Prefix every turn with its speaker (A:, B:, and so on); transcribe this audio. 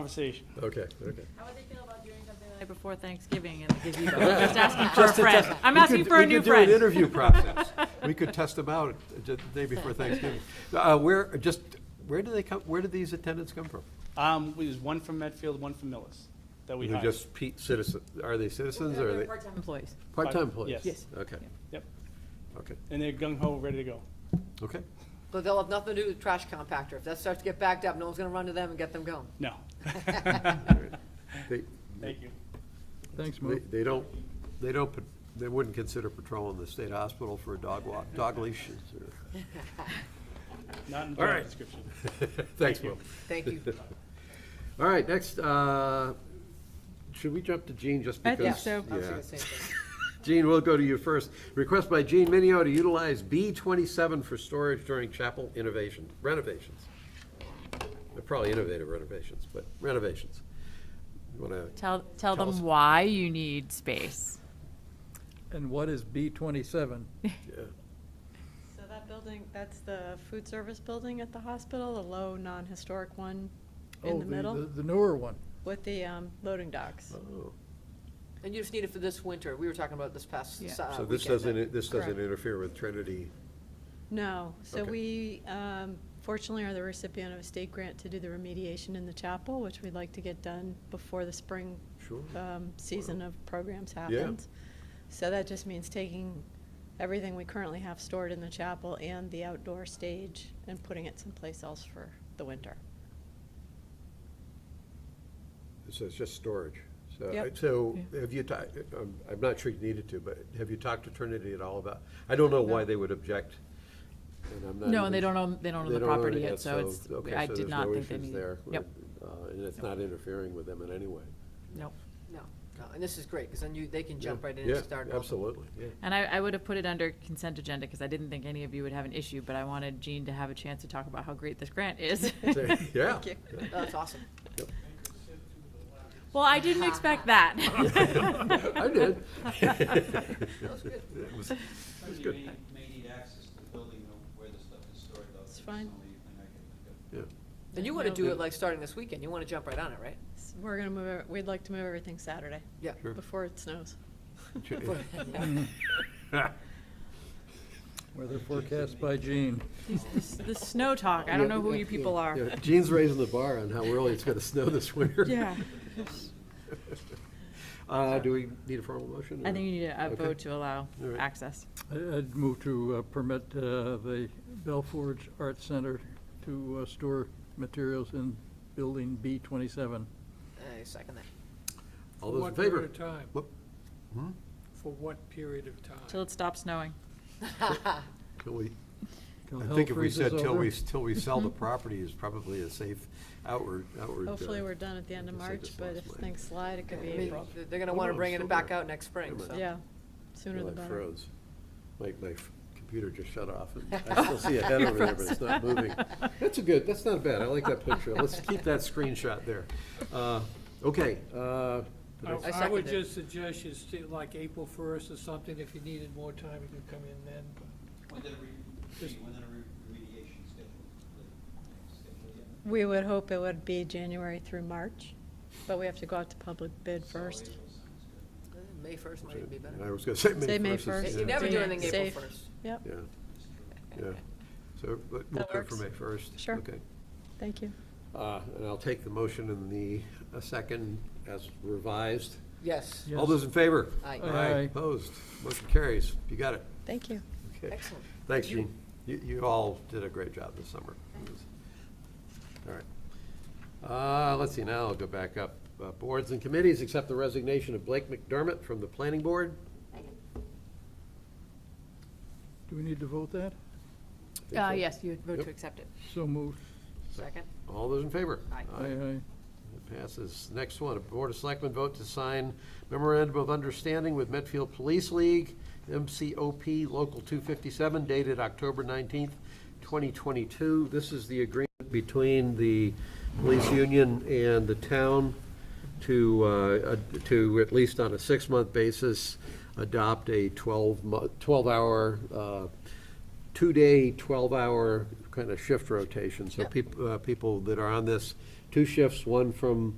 A: conversation.
B: Okay, okay.
C: How would they feel about doing something like before Thanksgiving and the gazebo? Just asking for a friend. I'm
B: We
C: asking
B: could-
C: for a
B: We
C: new
B: could do
C: friend.
B: an interview process. We could test them out ju- the day before Thanksgiving. Uh, Where, just, where do they come, where did these attendants come from?
A: Um, there's one from Medfield, one from Millis that we
B: They're
A: hired.
B: just Pete citizens, are they citizens or are they
C: Part-time employees.
B: part-time employees?
A: Yes. Yes.
B: Okay,
A: Yep,
B: okay,
A: and they're gung ho, ready to go.
B: okay.
D: But they'll have nothing to do with the trash compactor. If that starts to get backed up, no one's gonna run to them and get them going.
A: No.
B: All right. They,
A: Thank you.
E: Thanks,
B: they-
E: Mo.
B: they don't, they don't, pat- they wouldn't consider patrolling the state hospital for a dog walk, dog leashes or,
A: Not in the
B: All
A: job
B: right.
A: description.
B: thanks, Will.
D: Thank you.
B: All right, next, uh, should we jump to Gene just
C: I
B: because?
C: think Uh, so.
D: I was
B: Yeah.
D: thinking the same thing.
B: Gene, we'll go to you first. Request by Gene Minio to utilize B twenty-seven for storage during chapel innovation, renovations. They're probably innovative renovations, but renovations. You wanna,
C: Tell, tell
B: Tell us.
C: them why you need space.
E: And what is B twenty-seven?
B: yeah.
F: So that building, that's the food service building at the hospital, the low, non-historic one in the middle
E: Oh, The newer one.
F: with the um, loading docks.
B: Oh,
D: And you just need it for this winter. We were talking about this past
C: Yeah.
D: s- uh,
B: So this
D: weekend.
B: doesn't, this doesn't
F: Correct.
B: interfere with Trinity.
F: No, so
B: Okay.
F: we um, fortunately are the recipient of a state grant to do the remediation in the chapel, which we'd like to get done before the spring
B: Sure.
F: um, season of programs happens. So that just means taking everything we currently have stored in the chapel and the outdoor stage and putting it someplace else for the winter.
B: So it's just storage. So,
F: Yep.
B: so have you, ta- I'm, I'm not sure you needed to, but have you talked to Trinity at all about, I don't know why
F: No.
B: they would object. and I'm not
C: No, and they
B: even-
C: don't own, they don't own
B: They
C: the
B: don't own
C: property
B: it
C: yet, so it's,
B: okay,
C: I
B: so
C: did
B: there's
C: not
B: no
C: think they
B: issues
C: need.
B: there.
C: Yep,
B: Uh, And it's not interfering with them in any way.
C: nope.
D: No, no. And this is great, because then you, they can jump
B: Yeah.
D: right in and
B: Yeah,
D: start. up.
B: Absolutely, yeah.
C: And I, I would have put it under consent agenda because I didn't think any of you would have an issue, but I wanted Jean to have a chance to talk about how great this grant is.
B: So, Yeah.
F: you.
B: yeah.
D: That's awesome.
C: Well, I didn't expect that.
B: I did.
D: That was good.
B: It was-
G: Somebody
B: good.
G: may, may need access to the building though, where the stuff is stored though.
F: It's
G: There's
F: fine.
G: only a thing I can think of.
B: yeah.
D: And you wanna do it like starting this weekend. You wanna jump right on it, right?
F: S- We're gonna move, it- we'd like to move everything Saturday.
D: Yeah.
B: Sure.
F: Before it snows.
E: Weather forecast by Gene.
C: This- The snow talk, I don't know who you people are.
B: Yeah, Gene's raising the bar on how early it's gonna snow this winter.
C: Yeah.
B: Uh, do we need a formal motion?
C: I
B: or-
C: think you need a a
B: Okay.
C: vote to allow
B: All right.
C: access.
E: I- I'd move to uh, permit uh, the Belforge Arts Center to uh, store materials in building B twenty-seven.
D: I second that.
B: All those in favor?
H: What period of time?
B: Whoop.
H: For what period of time?
C: Till it stops snowing.
B: Till we, I think if we said till we, till we sell the property is probably a safe outward, outward. uh,
F: Hopefully, we're done at the end of
B: I just
F: March,
B: think
F: but
B: this
F: if
B: last
F: things slide, it could be
D: I mean,
F: April.
D: They're gonna
B: Oh,
D: wanna
B: no,
D: bring
B: still
D: it back
B: there.
D: out next spring,
B: Never
D: so.
B: mind.
F: Yeah,
B: I
F: sooner the better.
B: froze. My, my f- computer just shut off. and I still see a head over there, but it's not moving. That's a good, that's not bad. I like that picture. Let's keep that screenshot there. Uh, Okay. uh,
H: I-
B: did I-
H: I would
D: second it.
H: just suggest you stay like April first or something, if you needed more time, you could come in then.
G: When did a re, Gee, when did a re- remediation schedule? schedule yet?
F: We would hope it would be January through March, but we have to go out to public bid first.
G: So April sounds good.
D: Uh, May first might even be better.
B: I was gonna say
F: Say May
B: May first.
F: first.
D: You never do
F: Yeah.
D: anything April
F: Safe.
D: first.
F: Yep,
B: Yeah, yeah. So, but we'll
F: That
B: go for
F: works.
B: May first.
F: Sure.
B: Okay.
F: thank you.
B: Uh, And I'll take the motion in the, a second as revised.
D: Yes,
B: All those in favor?
D: Aye.
E: Aye.
B: Opposed? Motion carries. You got it.
F: Thank you.
B: Okay.
D: excellent.
B: Thanks, Gene. You, you all did a great job this summer. All right. Uh, let's see, now I'll go back up. Uh, Boards and committees, accept the resignation of Blake McDermott from the planning board.
E: Do we need to vote that?
C: Uh, yes, you would vote
B: Yep.
C: to accept it.
E: So moved.
D: Second,
B: All those in favor?
D: Aye.
E: Aye, aye.
B: It passes. Next one, a Board of Selectmen vote to sign memorandum of understanding with Medfield Police League, MCOP Local 257, dated October 19th, 2022. This is the agreement between the police union and the town to, uh, ad- to, at least on a six-month basis, adopt a 12, mo- 12-hour uh, two-day, 12-hour kind of shift rotation. So peop- uh, people that are on this two shifts, one from